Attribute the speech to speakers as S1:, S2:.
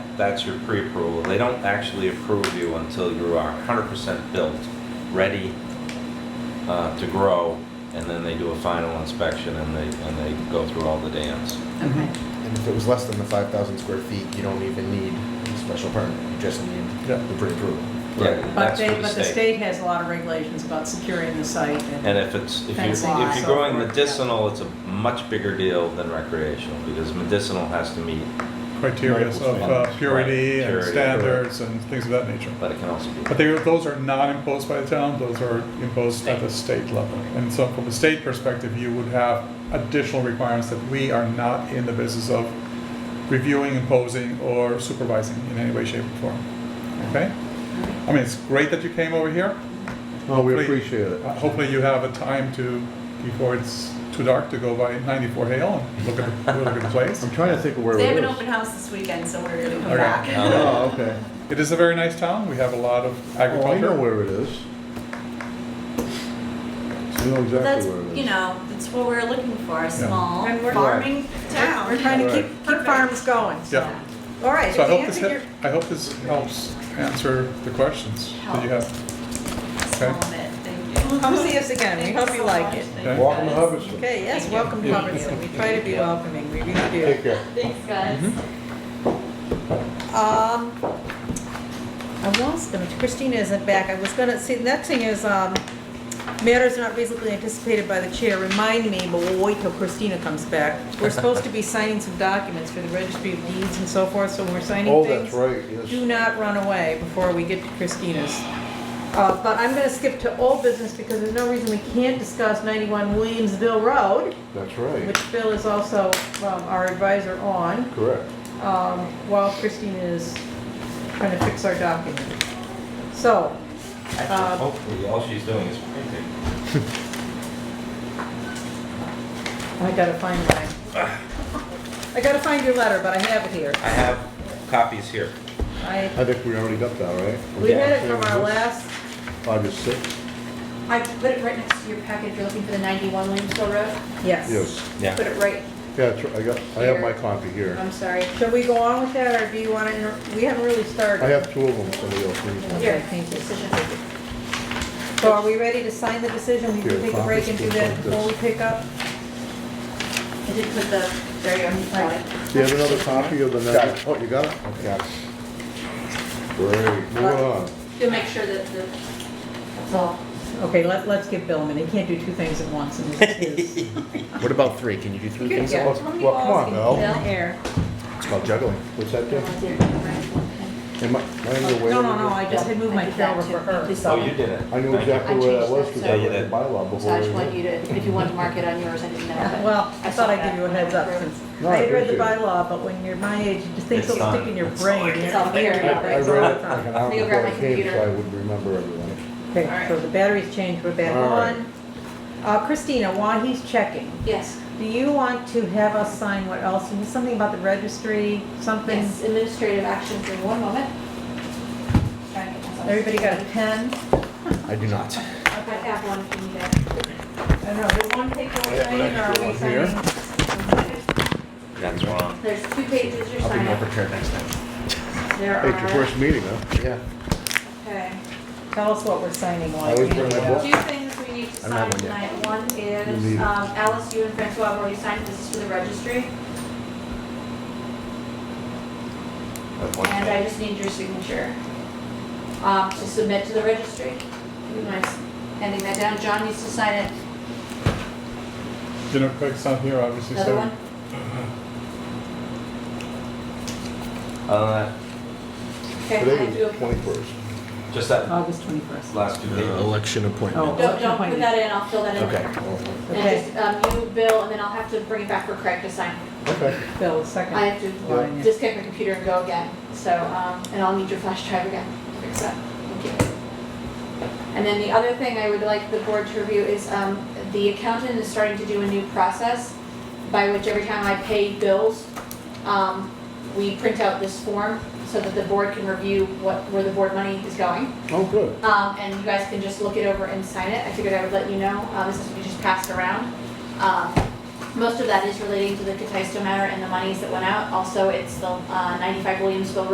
S1: that's your pre-approval. They don't actually approve you until you are hundred percent built, ready uh, to grow, and then they do a final inspection and they, and they go through all the dams.
S2: Okay.
S3: And if it was less than the five thousand square feet, you don't even need a special permit, you just need
S4: Yeah.
S3: the pre-approval.
S1: Right.
S2: But
S1: That's
S2: they,
S1: for the
S2: but the
S1: state.
S2: state has a lot of regulations about securing the site
S1: And
S2: and,
S1: if it's, if you,
S2: That's
S1: if
S2: why.
S1: you're growing medicinal, it's a much bigger deal than recreational, because medicinal has to meet,
S4: criteria of uh,
S1: Right,
S4: purity and
S1: purity,
S4: standards and things of that nature.
S1: but it can also
S4: But
S1: be.
S4: they, those are not imposed by the town, those are imposed at the state level. And so from a state perspective, you would have additional requirements that we are not in the business of reviewing, imposing, or supervising in any way, shape, or form. Okay? I mean, it's great that you came over here.
S5: Oh, we
S4: Hopefully-
S5: appreciate it.
S4: Uh, Hopefully you have a time to, before it's too dark, to go by 94 Hale and look at, the- look at the place.
S5: I'm trying to think of where
S6: They have
S5: it
S6: an
S5: is.
S6: open house this weekend, so we're gonna come
S4: Okay.
S6: back.
S1: Uh,
S5: Oh, okay.
S4: It is a very nice town, we have a lot of
S5: Oh, I
S4: agriculture.
S5: know where it is. I know
S6: But That's,
S5: exactly where it
S6: you
S5: is.
S6: know, that's what we're looking for, a small
S2: And we're-
S6: farming town.
S2: we're trying to keep,
S5: Right.
S2: keep farms going.
S4: Yeah.
S2: All right,
S4: So I
S2: if you
S4: hope this,
S2: answer your-
S4: hel- I hope this helps answer the questions that you have.
S6: Small bit, thank you.
S2: Come see us again. We hope you like it.
S6: Thanks,
S5: Welcome to
S6: guys.
S5: Hubbardston.
S2: Okay, yes,
S6: Thank you.
S2: welcome to
S6: Yeah.
S2: Hubbardston. We try to be
S1: Yeah.
S2: welcoming, we really
S5: Take
S2: do.
S5: care.
S6: Thanks, guys.
S2: Um, I was gonna, Christina isn't back. I was gonna, see, the next thing is, um, matters not reasonably anticipated by the chair. Remind me, but we'll wait till Christina comes back. We're supposed to be signing some documents for the registry of deeds and so forth, so when we're signing
S5: Oh,
S2: things.
S5: that's right,
S2: Do
S5: yes.
S2: not run away before we get to Christina's. Uh, But I'm going to skip to old business because there's no reason we can't discuss 91 Williamsville Road,
S5: That's right.
S2: which Bill is also um, our advisor on,
S5: Correct.
S2: um, while Christina is trying to fix our document. So,
S5: Uh,
S2: Um,
S1: Actually, Hopefully, all she's doing is painting.
S2: I gotta find mine. I gotta find your letter, but I have it here.
S1: I have copies here.
S2: I,
S5: I think we already got that, right?
S2: we had it from our last,
S5: August sixth,
S7: I put it right next to your package, you're looking for the 91 Williamsville Road.
S2: yes.
S5: yes.
S1: Yeah.
S7: Put it right,
S5: Yeah, that's right. I got, I have my copy here.
S7: I'm sorry.
S2: Should we go on with that, or do you want to, we haven't really started.
S5: I have two of them, somebody else needs one.
S2: Okay, thank you.
S7: Decision.
S2: So are we ready to sign the decision? We can
S5: Here,
S2: take a break and do that
S5: copy.
S2: before we pick up?
S7: I did put the, there you are.
S5: Do you have another copy of the? Got Oh, you got it? Okay. Great, moving on.
S7: You'll make sure that the, that's all.
S2: Okay, let, let's give Bill a minute. He can't do two things at once and this is his
S3: What about three, can you do three
S2: things at
S7: Yeah,
S5: Well,
S7: how many
S5: well, come on, Mel.
S7: balls can you
S2: in the
S7: fill?
S2: air.
S3: It's called juggling.
S5: What's that do?
S7: Oh, I did, right.
S5: Am I, am I in the way?
S2: No, no, no, I just had moved my
S7: I did that
S2: calendar
S7: too.
S2: for
S7: Thank
S2: her. Uh,
S7: you so
S1: Oh,
S7: much.
S1: you did it.
S5: I knew
S1: Thank you.
S5: exactly
S7: I
S5: where that
S7: changed
S5: was
S7: that,
S5: because
S7: so-
S5: I
S1: Yeah, you
S5: read the
S1: did.
S5: bylaw
S7: So
S5: before.
S7: I
S5: we
S7: just
S5: did
S7: wanted
S5: it.
S7: you to, if you wanted to mark it on yours, I didn't know. but
S2: Well, I
S7: saw
S2: thought I'd
S7: that
S2: give you a
S7: when I
S2: heads up
S7: wrote it.
S2: since
S5: No, I
S2: I had read the
S5: appreciate it.
S2: bylaw, but when you're my age, you just think
S1: It's
S2: it'll
S1: not-
S2: stick in your
S1: it's
S2: brain.
S7: It's all here.
S5: I I read it like an hour
S7: Let me go grab
S5: before
S7: my
S5: I came, so
S7: computer.
S5: I would remember everything.
S2: Okay, so the batteries changed, we're back
S5: All right.
S2: on. Uh, Christina, while he's checking,
S7: Yes,
S2: do you want to have us sign what else? Something about the registry, something?
S7: yes, administrative action for one moment. Try and get myself-
S2: Everybody got a pen?
S3: I do not.
S7: I have one if you need it.
S2: I don't know, there's one paper we're
S5: have an
S2: signing, or are
S5: extra
S2: we
S5: one here.
S2: signing?
S1: That's wrong.
S7: There's two pages you're
S3: I'll be more
S7: signing.
S3: prepared next time.
S7: There
S5: Hey, it's your
S7: are,
S5: first meeting, huh?
S3: Yeah.
S7: okay.
S2: Tell us what we're signing on.
S5: I always bring my book.
S7: Two things we need to
S3: I don't have
S7: sign
S3: one
S7: tonight. One
S5: You
S7: is,
S5: need it.
S7: um, Alice, you and Francois have already signed, this is for the registry. And I just need your signature, um, to submit to the registry. You mind handing that down? John needs to sign it.
S4: You know, Craig's not here, obviously,
S7: Another
S4: so
S7: one?
S1: Uh,
S7: Okay,
S5: Today
S7: I
S5: was
S7: do.
S5: the twenty-first.
S1: just that
S2: August 21st.
S1: last two pages.
S3: Election
S2: appointment.
S7: Don't, don't put that in, I'll fill that in.
S3: Okay.
S5: Oh,
S2: Okay.
S7: And just, um, you, Bill, and then I'll have to bring it back for Craig to sign.
S5: Okay.
S2: Bill,
S7: I
S2: second.
S7: have
S2: Line, yeah.
S7: to disconnect my computer and go again, so, um, and I'll need your flash drive again to fix that. Thank you. And then the other thing I would like the board to review is, um, the accountant is starting to do a new process by which every time I pay bills, um, we print out this form so that the board can review what, where the board money is going.
S5: Oh, good.
S7: Um, and you guys can just look it over and sign it. I figured I would let you know. Uh, this is to be just passed around. Um, most of that is relating to the Cataisto matter and the monies that went out. Also, it's the, uh, ninety-five Williamsville Road